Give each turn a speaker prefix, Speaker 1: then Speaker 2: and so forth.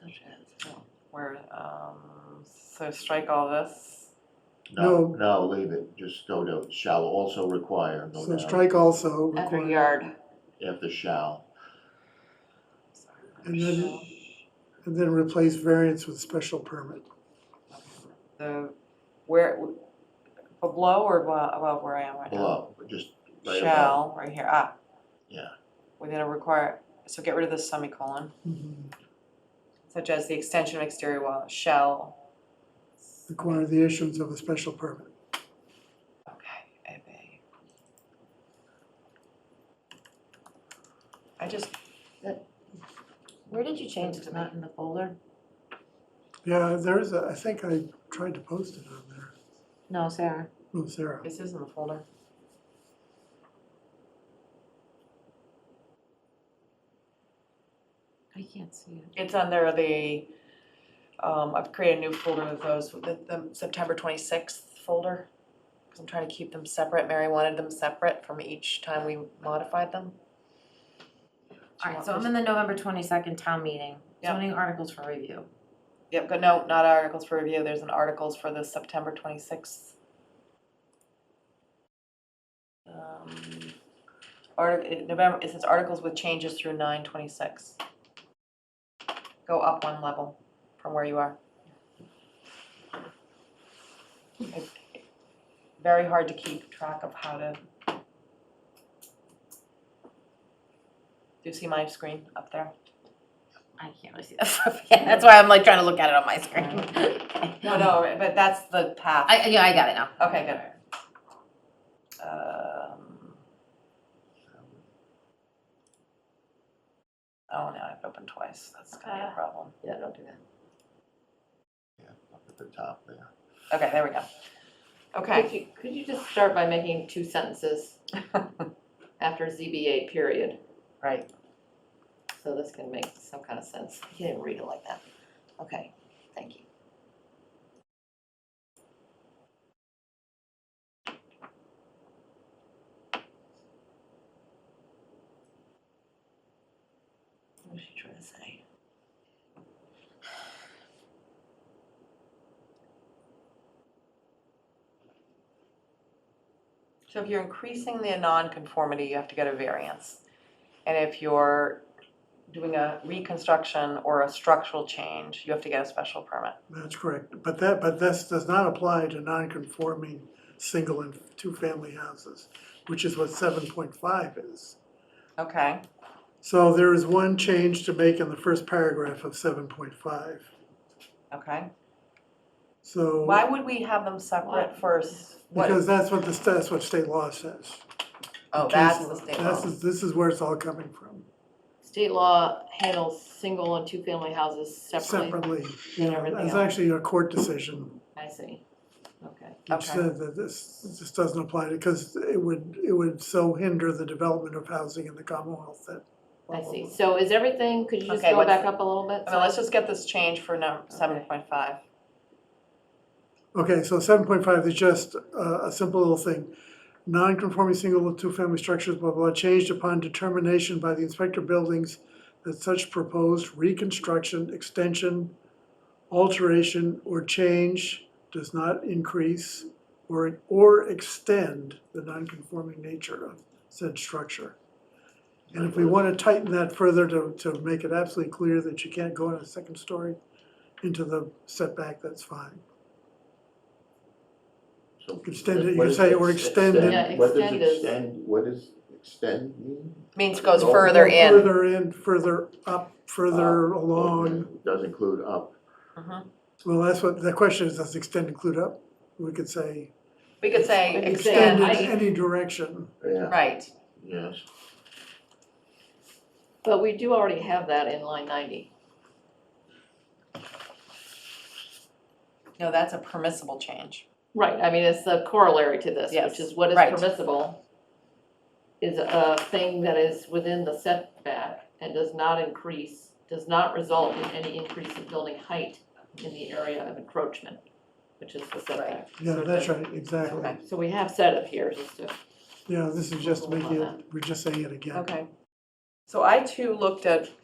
Speaker 1: changes. Where, um, so strike all this,
Speaker 2: No.
Speaker 3: No, no, leave it, just go to shall also require, go
Speaker 2: So
Speaker 3: down.
Speaker 2: strike also
Speaker 1: under
Speaker 2: require.
Speaker 1: yard.
Speaker 3: After shall,
Speaker 2: And then, and then replace variance with special permit.
Speaker 1: The, where, below or abo- above where I am right now?
Speaker 3: below, just right above.
Speaker 1: Shall, right here, ah.
Speaker 3: Yeah.
Speaker 1: We're gonna require, so get rid of the semicolon, such as the extension of exterior wall, shall,
Speaker 2: Require the issuance of a special permit.
Speaker 1: okay, obey. I just,
Speaker 4: Where did you change it? It's not in the folder?
Speaker 2: Yeah, there is a, I think I tried to post it on there.
Speaker 4: No, Sarah.
Speaker 2: Oh, Sarah.
Speaker 1: this is in the folder.
Speaker 4: I can't see it.
Speaker 1: It's under the, um, I've created a new folder of those, the, the September twenty-sixth folder. Cause I'm trying to keep them separate, Mary wanted them separate from each time we modified them.
Speaker 4: All right, so I'm in the November twenty-second town meeting,
Speaker 1: Yeah.
Speaker 4: zoning articles for review.
Speaker 1: Yep, but no, not articles for review, there's an articles for the September twenty-sixth. Um, article, November, it says articles with changes through nine twenty-six. Go up one level from where you are. It's Very hard to keep track of how to. Do you see my screen up there?
Speaker 4: I can't really see that stuff yet. That's why I'm like trying to look at it on my screen.
Speaker 1: No, no, but that's the path.
Speaker 4: I, yeah, I got it now.
Speaker 1: Okay, good. Um, oh, now I've opened twice, that's gonna be a
Speaker 4: Ah.
Speaker 1: problem.
Speaker 4: Yeah, don't do that.
Speaker 3: Yeah, up at the top there.
Speaker 1: Okay, there we go.
Speaker 5: Could
Speaker 1: Okay,
Speaker 5: you, could you just start by making two sentences after ZBA period?
Speaker 1: right,
Speaker 5: So this can make some kind of sense. He didn't read it like that. Okay, thank you. What was she trying to say?
Speaker 1: so if you're increasing the non-conformity, you have to get a variance. And if you're doing a reconstruction or a structural change, you have to get a special permit.
Speaker 2: That's correct. But that, but this does not apply to non-conforming single and two-family houses, which is what seven point five is.
Speaker 1: Okay,
Speaker 2: So there is one change to make in the first paragraph of seven point five.
Speaker 1: okay.
Speaker 2: So.
Speaker 1: Why would we have them separate
Speaker 5: Why?
Speaker 1: first? What-
Speaker 2: Because that's what the, sta- that's what state law says.
Speaker 1: Oh,
Speaker 2: Case
Speaker 1: that's
Speaker 2: law.
Speaker 1: the state
Speaker 2: This
Speaker 1: law.
Speaker 2: is, this is where it's all coming from,
Speaker 5: State law handles single and two-family houses separately.
Speaker 2: separately.
Speaker 5: than
Speaker 2: Yeah,
Speaker 5: everything
Speaker 2: It's
Speaker 5: else.
Speaker 2: actually a court decision,
Speaker 5: I see. Okay.
Speaker 2: which
Speaker 1: Okay.
Speaker 2: said that this, this doesn't apply, because it would, it would so hinder the development of housing in the Commonwealth that.
Speaker 5: I see. So is everything, could you just
Speaker 1: Okay,
Speaker 5: go
Speaker 1: what's
Speaker 5: back
Speaker 1: the-
Speaker 5: up a little bit?
Speaker 1: I mean, let's just get this change for number seven point five.
Speaker 2: Okay, so seven point five is just a, a simple little thing. Non-conforming single and two-family structures, blah, blah, changed upon determination by the inspector buildings that such proposed reconstruction, extension, alteration, or change does not increase or, or extend the non-conforming nature of said structure. And if we wanna tighten that further to, to make it absolutely clear that you can't go on a second story into the setback, that's fine.
Speaker 3: So
Speaker 2: Extend it, you
Speaker 3: what
Speaker 2: could
Speaker 3: is
Speaker 2: say, or
Speaker 3: ex-
Speaker 2: extend it.
Speaker 5: Yeah,
Speaker 3: What does
Speaker 5: extend is-
Speaker 3: extend, what does extend mean?
Speaker 1: Means goes
Speaker 3: Go
Speaker 1: further in. Uh,
Speaker 2: Further in, further up, further along.
Speaker 3: Okay, Does include up,
Speaker 1: Mhm.
Speaker 2: Well, that's what, the question is, does extend include up? We could say,
Speaker 1: We could say
Speaker 5: We could say
Speaker 2: extend
Speaker 1: extend,
Speaker 2: in
Speaker 5: I-
Speaker 2: any direction.
Speaker 3: yeah,
Speaker 1: right,
Speaker 3: yes.
Speaker 5: But we do already have that in line ninety.
Speaker 1: no, that's a permissible change.
Speaker 5: Right, I mean, it's the corollary to this,
Speaker 1: Yes,
Speaker 5: which is what is
Speaker 1: right.
Speaker 5: permissible is a thing that is within the setback and does not increase, does not result in any increase in building height in the area of encroachment, which is the setback.
Speaker 2: Yeah, that's right, exactly.
Speaker 1: Okay.
Speaker 5: So we have set up here, just to,
Speaker 2: Yeah, this is just making it, we're just saying it again.
Speaker 1: Okay. So I too looked at